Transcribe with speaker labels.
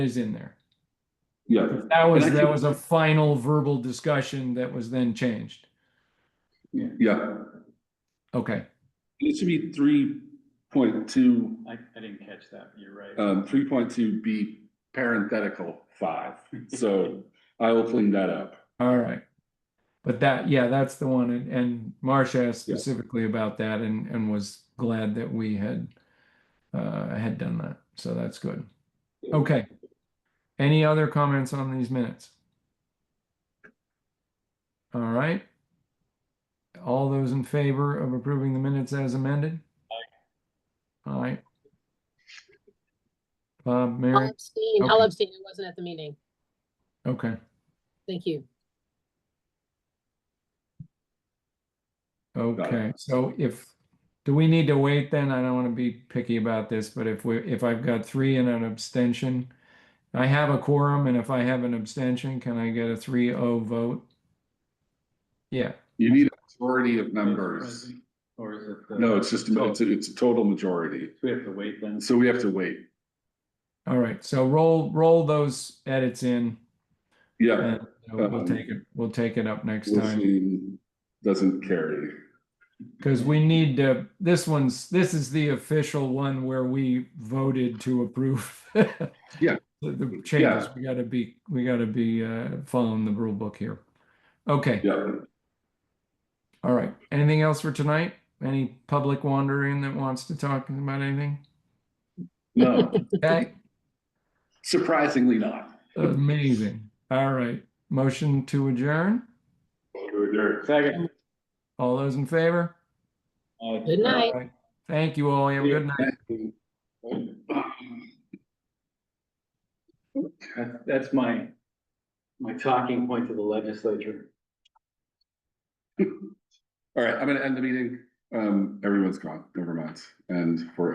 Speaker 1: is in there.
Speaker 2: Yeah,
Speaker 1: That was,
Speaker 2: And I
Speaker 1: that
Speaker 2: think-
Speaker 1: was a final verbal discussion that was then changed.
Speaker 2: yeah.
Speaker 1: Okay,
Speaker 2: It should be three point two,
Speaker 3: I, I didn't catch that, you're right.
Speaker 2: um, three point two B parenthetical five. So I will clean that up.
Speaker 1: all right. But that, yeah, that's the one, and, and Marcia asked specifically about that and, and was glad that we had, uh, had done that, so that's good. Okay. Any other comments on these minutes? All right. All those in favor of approving the minutes as amended? All right. Bob,
Speaker 4: I'll
Speaker 1: Mary?
Speaker 4: abstain, I'll
Speaker 1: Okay.
Speaker 4: abstain, I wasn't at the meeting,
Speaker 1: Okay,
Speaker 4: thank you.
Speaker 1: okay, so if, do we need to wait then? I don't want to be picky about this, but if we, if I've got three and an abstention, I have a quorum, and if I have an abstention, can I get a three oh vote? Yeah,
Speaker 2: You need a majority of members.
Speaker 3: Or is it? the-
Speaker 2: No, it's just, a-
Speaker 3: Oh,
Speaker 2: it's, a- it's a total majority.
Speaker 3: We have to wait then.
Speaker 2: So we have to wait.
Speaker 1: all right, so roll, roll those edits in,
Speaker 2: Yeah.
Speaker 1: and uh, we'll
Speaker 2: Um,
Speaker 1: take it, we'll take it up next
Speaker 2: This
Speaker 1: time.
Speaker 2: thing Doesn't carry.
Speaker 1: Because we need to, this one's, this is the official one where we voted to approve.
Speaker 2: Yeah.
Speaker 1: The- The changes, we gotta be, we gotta be uh following the rule book here. Okay,
Speaker 2: Yeah.
Speaker 1: all right. Anything else for tonight? Any public wandering that wants to talk about anything?
Speaker 2: No,
Speaker 1: Okay,
Speaker 2: surprisingly not.
Speaker 1: amazing. All right, motion to adjourn.
Speaker 3: Second.
Speaker 1: All those in favor?
Speaker 3: Aye.
Speaker 4: Good night.
Speaker 1: All right. Thank you all. You Have a good night.
Speaker 3: That- That's my, my talking point to the legislature.
Speaker 2: All right, I'm gonna end the meeting. Um, everyone's gone, never mind. And for